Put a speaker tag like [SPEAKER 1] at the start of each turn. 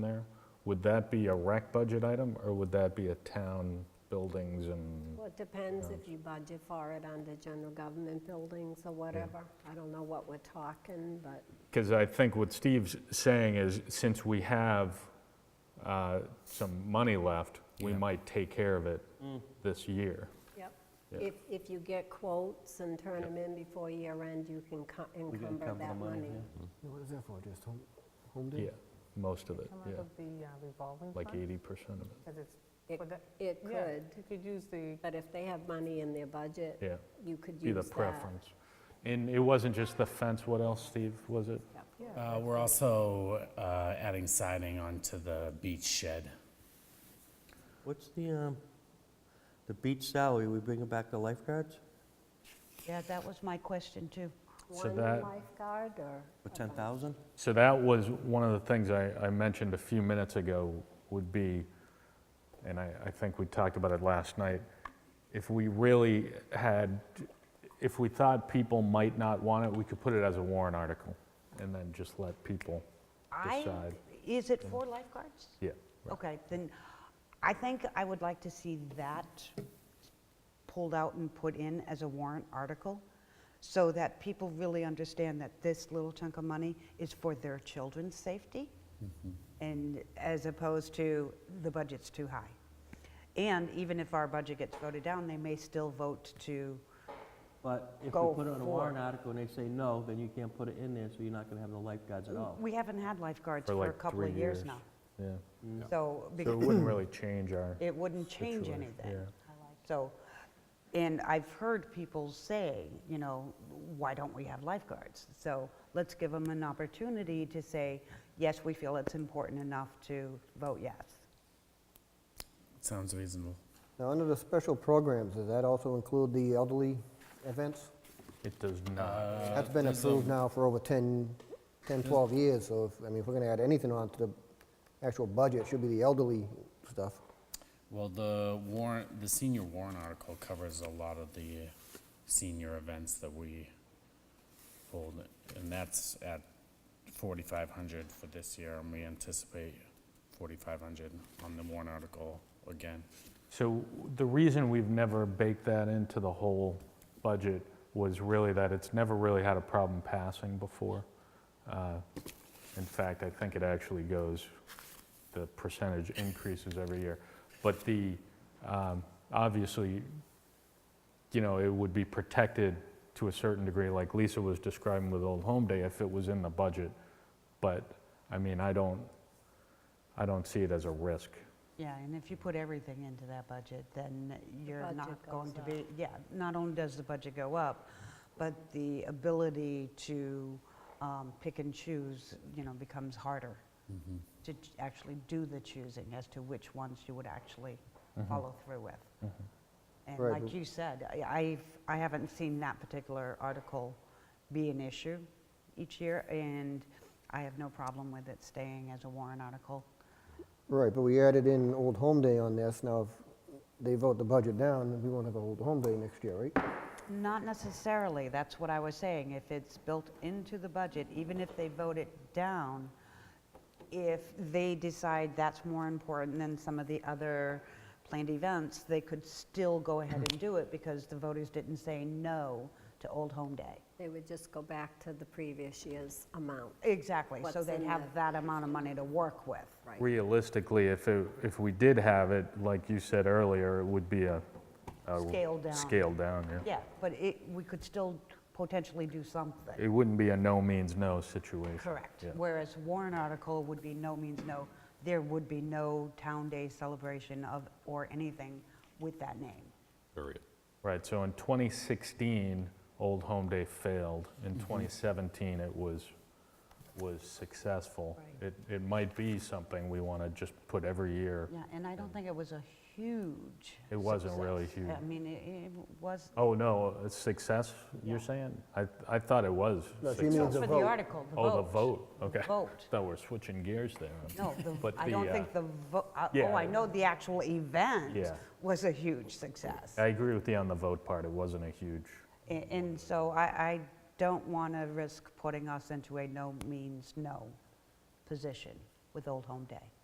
[SPEAKER 1] there, would that be a rec budget item, or would that be a town buildings and,
[SPEAKER 2] Well, it depends if you budget for it under general government buildings or whatever. I don't know what we're talking, but,
[SPEAKER 1] because I think what Steve's saying is, since we have uh, some money left, we
[SPEAKER 3] Yeah.
[SPEAKER 1] might take care of it this year.
[SPEAKER 2] yep.
[SPEAKER 1] Yeah.
[SPEAKER 2] If, if you get quotes and turn them in before year end, you can co- encumber that money.
[SPEAKER 4] Yeah, What is that for, just home, home
[SPEAKER 1] Yeah,
[SPEAKER 4] day?
[SPEAKER 1] most of it,
[SPEAKER 5] Come
[SPEAKER 1] yeah,
[SPEAKER 5] out of the uh, revolving
[SPEAKER 1] like
[SPEAKER 5] fund?
[SPEAKER 1] 80% of it,
[SPEAKER 5] Because it's,
[SPEAKER 2] It-
[SPEAKER 5] for that-
[SPEAKER 2] It
[SPEAKER 5] yeah,
[SPEAKER 2] could,
[SPEAKER 5] you could use the,
[SPEAKER 2] but if they have money in their budget,
[SPEAKER 1] yeah,
[SPEAKER 2] you could
[SPEAKER 1] be
[SPEAKER 2] use
[SPEAKER 1] the
[SPEAKER 2] that.
[SPEAKER 1] preference. And it wasn't just the fence, what else, Steve, was it?
[SPEAKER 2] Yep.
[SPEAKER 5] yeah,
[SPEAKER 3] Uh, We're also uh, adding siding onto the beach shed.
[SPEAKER 6] What's the, um, the beach salary, we bringing back the lifeguards
[SPEAKER 7] Yeah, that was my question, too.
[SPEAKER 1] So
[SPEAKER 2] One
[SPEAKER 1] that-
[SPEAKER 2] lifeguard or?
[SPEAKER 6] for 10,000?
[SPEAKER 1] So that was one of the things I, I mentioned a few minutes ago would be, and I, I think we talked about it last night, if we really had, if we thought people might not want it, we could put it as a warrant article and then just let people
[SPEAKER 7] I,
[SPEAKER 1] decide.
[SPEAKER 7] is it for lifeguards?
[SPEAKER 1] Yeah.
[SPEAKER 7] Okay, then, I think I would like to see that pulled out and put in as a warrant article, so that people really understand that this little chunk of money is for their children's safety,
[SPEAKER 1] Mm-hmm.
[SPEAKER 7] and as opposed to the budget's too high. And even if our budget gets voted down, they may still vote to,
[SPEAKER 6] But if
[SPEAKER 7] Go
[SPEAKER 6] you put it on
[SPEAKER 7] for
[SPEAKER 6] a
[SPEAKER 7] it.
[SPEAKER 6] warrant article and they say no, then you can't put it in there, so you're not gonna have the lifeguards at all.
[SPEAKER 7] we haven't had lifeguards
[SPEAKER 1] For
[SPEAKER 7] for a
[SPEAKER 1] like
[SPEAKER 7] couple of
[SPEAKER 1] three
[SPEAKER 7] years
[SPEAKER 1] years.
[SPEAKER 7] now.
[SPEAKER 1] Yeah.
[SPEAKER 7] So,
[SPEAKER 1] So it
[SPEAKER 7] because
[SPEAKER 1] wouldn't really change our,
[SPEAKER 7] it wouldn't change
[SPEAKER 1] Situation,
[SPEAKER 7] anything.
[SPEAKER 1] yeah.
[SPEAKER 7] So, and I've heard people say, you know, why don't we have lifeguards? So let's give them an opportunity to say, yes, we feel it's important enough to vote yes.
[SPEAKER 3] Sounds reasonable.
[SPEAKER 4] Now, under the special programs, does that also include the elderly events?
[SPEAKER 1] it does not.
[SPEAKER 4] That's been
[SPEAKER 3] there's a-
[SPEAKER 4] approved now for over 10, 10, 12 years, so if, I mean, if we're gonna add anything onto the actual budget, it should be the elderly stuff.
[SPEAKER 3] Well, the warrant, the senior warrant article covers a lot of the senior events that we hold, and that's at 4,500 for this year, and we anticipate 4,500 on the warrant article again.
[SPEAKER 1] So the reason we've never baked that into the whole budget was really that it's never really had a problem passing before. Uh, In fact, I think it actually goes, the percentage increases every year. But the, um, obviously, you know, it would be protected to a certain degree, like Lisa was describing with Old Home Day, if it was in the budget. But, I mean, I don't, I don't see it as a risk.
[SPEAKER 7] Yeah, and if you put everything into that budget, then you're
[SPEAKER 2] budget
[SPEAKER 7] not going
[SPEAKER 2] goes
[SPEAKER 7] to be, yeah, not only does the budget go up, but the ability to um, pick and choose, you know, becomes harder to ch- actually do the choosing as to which ones you would actually follow through with. And
[SPEAKER 4] Right,
[SPEAKER 7] like
[SPEAKER 4] but-
[SPEAKER 7] you said, I- I've, I haven't seen that particular article be an issue each year, and I have no problem with it staying as a warrant article.
[SPEAKER 4] Right, but we added in Old Home Day on this, now if they vote the budget down, then we won't have Old Home Day next year, right?
[SPEAKER 7] Not necessarily, that's what I was saying. If it's built into the budget, even if they vote it down, if they decide that's more important than some of the other planned events, they could still go ahead and do it because the voters didn't say no to Old Home Day.
[SPEAKER 2] They would just go back to the previous year's amount,
[SPEAKER 7] Exactly, so
[SPEAKER 2] What's
[SPEAKER 7] they'd
[SPEAKER 2] in
[SPEAKER 7] have
[SPEAKER 2] the-
[SPEAKER 7] that amount of money to work with.
[SPEAKER 2] right?
[SPEAKER 1] Realistically, if it, if we did have it, like you said earlier, it would be a. a
[SPEAKER 7] Scaled down.
[SPEAKER 1] Scaled down, yeah.
[SPEAKER 7] Yeah, but it, we could still potentially do something.
[SPEAKER 1] It wouldn't be a no means no situation.
[SPEAKER 7] Correct.
[SPEAKER 1] Yeah.
[SPEAKER 7] Whereas warrant article would be no means no. There would be no town day celebration of, or anything with that name.
[SPEAKER 1] Right, so in 2016, Old Home Day failed. In
[SPEAKER 7] Mm-hmm.
[SPEAKER 1] 2017, it was, was successful.
[SPEAKER 7] Right.
[SPEAKER 1] It, it might be something we want to just put every year.
[SPEAKER 7] Yeah, and I don't think it was a huge.
[SPEAKER 1] It wasn't really
[SPEAKER 7] success.
[SPEAKER 1] huge.
[SPEAKER 7] I mean, it, it was,
[SPEAKER 1] Oh, no, a success, you're
[SPEAKER 7] Yeah.
[SPEAKER 1] saying? I, I thought it was
[SPEAKER 4] No, she means
[SPEAKER 1] successful.
[SPEAKER 4] the
[SPEAKER 7] for the
[SPEAKER 4] vote.
[SPEAKER 7] article, the vote.
[SPEAKER 1] Oh, the vote, okay.
[SPEAKER 7] Vote.
[SPEAKER 1] Thought we're switching gears there.
[SPEAKER 7] No, the-
[SPEAKER 1] But
[SPEAKER 7] I
[SPEAKER 1] the,
[SPEAKER 7] don't
[SPEAKER 1] uh,
[SPEAKER 7] think the vote,
[SPEAKER 1] yeah.
[SPEAKER 7] oh, I know the actual event
[SPEAKER 1] Yeah.
[SPEAKER 7] was a huge success.
[SPEAKER 1] I agree with you on the vote part, it wasn't a huge.
[SPEAKER 7] A- And so I, I don't want to risk putting us into a no means no position. with Old Home Day.